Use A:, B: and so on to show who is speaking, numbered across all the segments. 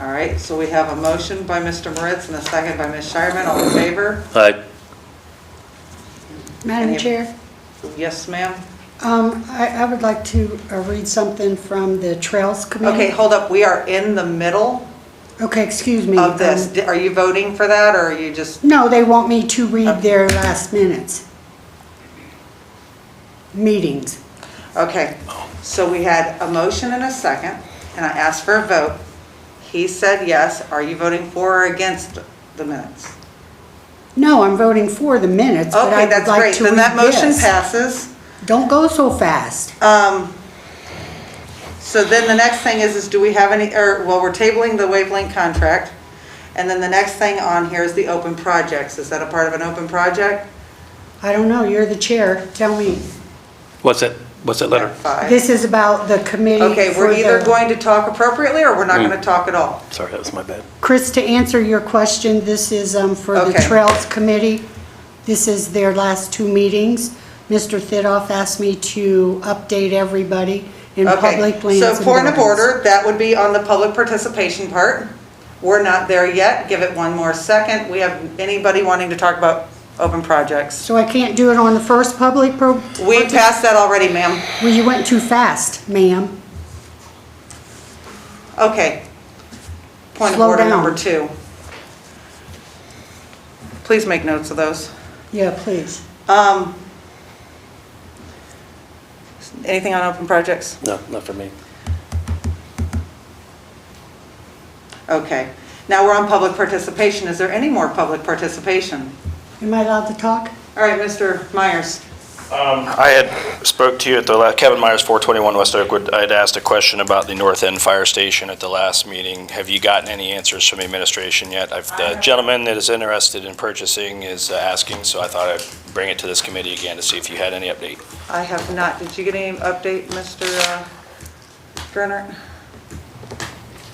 A: All right, so we have a motion by Mr. Moritz and a second by Ms. Shireman. All in favor?
B: Aye.
A: Any-
C: Madam Chair,
A: Yes, ma'am?
C: um, I I would like to uh, read something from the Trails Committee.
A: Okay, hold up, we are in the middle
C: Okay, excuse me.
A: of this.
C: Um,
A: Di- Are you voting for that, or are you just,
C: No, they want me to read their last minutes. Meetings.
A: okay. So we had a motion and a second, and I asked for a vote. He said yes. Are you voting for or against the minutes?
C: No, I'm voting for the minutes, but I
A: Okay,
C: would
A: that's
C: like
A: great.
C: to read
A: Then that motion
C: this.
A: passes.
C: Don't go so fast.
A: Um, So then the next thing is, is do we have any, or, well, we're tabling the wavelength contract. And then the next thing on here is the open projects. Is that a part of an open project?
C: I don't know, you're the chair, tell me.
B: What's that, what's that letter?
A: Five.
C: This is about the committee.
A: Okay,
C: for
A: we're either
C: the-
A: going to talk appropriately or we're not going to talk at all.
B: Sorry, that was my bad.
C: Chris, to answer your question, this is um, for the
A: Okay.
C: Trails Committee. This is their last two meetings. Mr. Thidoff asked me to update everybody in public lands
A: Okay, so
C: and
A: point of
C: buildings.
A: order, that would be on the public participation part. We're not there yet. Give it one more second. We have anybody wanting to talk about open projects?
C: So I can't do it on the first public pro...
A: We passed that already, ma'am.
C: Well, you went too fast, ma'am.
A: Okay. Point of
C: Slow
A: order
C: down.
A: number two. Please make notes of those.
C: Yeah, please.
A: Um, Anything on open projects?
B: No, not for me.
A: Okay. Now we're on public participation. Is there any more public participation?
C: Am I allowed to talk?
A: All right, Mr. Myers.
D: Um, I had spoke to you at the, la- Kevin Myers, 421 West Oakwood. I had asked a question about the North End Fire Station at the last meeting. Have you gotten any answers from the administration yet? I've- The gentleman that is interested in purchasing is uh, asking, so I thought I'd bring it to this committee again to see if you had any update.
A: I have not. Did you get any update, Mr. uh, Gernert?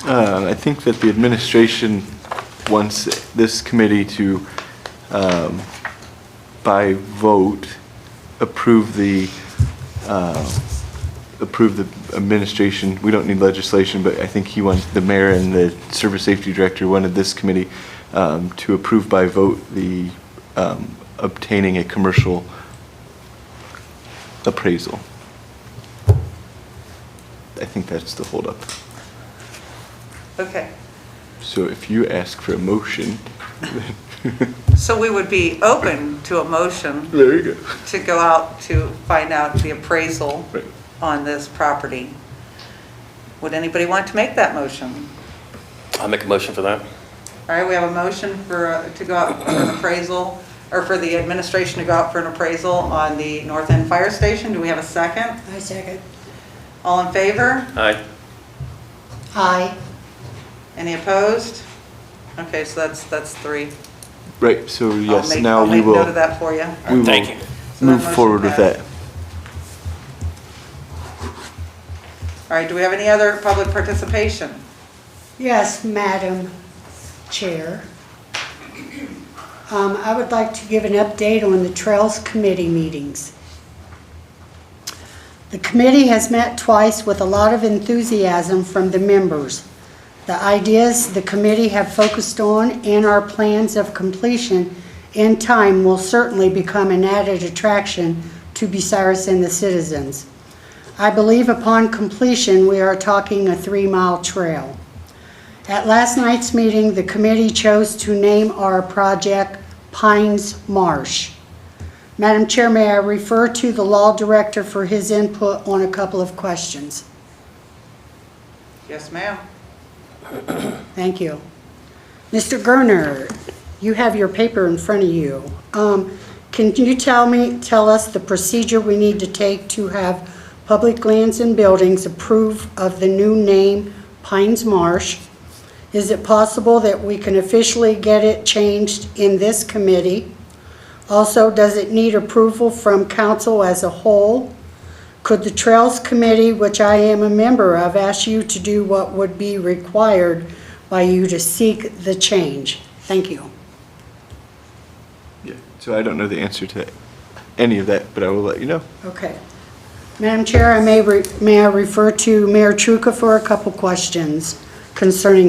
E: Uh, I think that the administration wants this committee to, um, by vote, approve the, uh, approve the administration, we don't need legislation, but I think he wants, the mayor and the service safety director wanted this committee um, to approve by vote the um, obtaining a commercial appraisal. I think that's the holdup.
A: Okay.
E: So if you ask for a motion,
A: So we would be open to a motion
E: there you go.
A: to go out to find out the appraisal
E: Right.
A: on this property. Would anybody want to make that motion?
B: I'll make a motion for that.
A: All right, we have a motion for, uh, to go out for an appraisal, or for the administration to go out for an appraisal on the North End Fire Station. Do we have a second?
C: I second.
A: All in favor?
B: Aye.
C: Aye.
A: Any opposed? Okay, so that's, that's three.
E: Right, so
A: I'll
E: yes,
A: make-
E: now we
A: I'll make note of
E: will,
A: that for you.
E: we
D: Thank
E: will
D: you.
A: So that
E: move
A: motion
E: forward with
A: passed.
E: that.
A: All right, do we have any other public participation?
C: Yes, Madam Chair. Um, I would like to give an update on the Trails Committee meetings. The committee has met twice with a lot of enthusiasm from the members. The ideas the committee have focused on and our plans of completion in time will certainly become an added attraction to Bucyrus and the citizens. I believe upon completion, we are talking a three-mile trail. At last night's meeting, the committee chose to name our project Pines Marsh. Madam Chair, may I refer to the law director for his input on a couple of questions?
A: Yes, ma'am.
C: Thank you. Mr. Gerner, you have your paper in front of you. Um, Can you tell me, tell us the procedure we need to take to have public lands and buildings approve of the new name Pines Marsh? Is it possible that we can officially get it changed in this committee? Also, does it need approval from council as a whole? Could the Trails Committee, which I am a member of, ask you to do what would be required by you to seek the change? Thank you.
E: Yeah, So I don't know the answer to any of that, but I will let you know.
C: Okay. Madam Chair, I may, re- may I refer to Mayor Truca for a couple questions concerning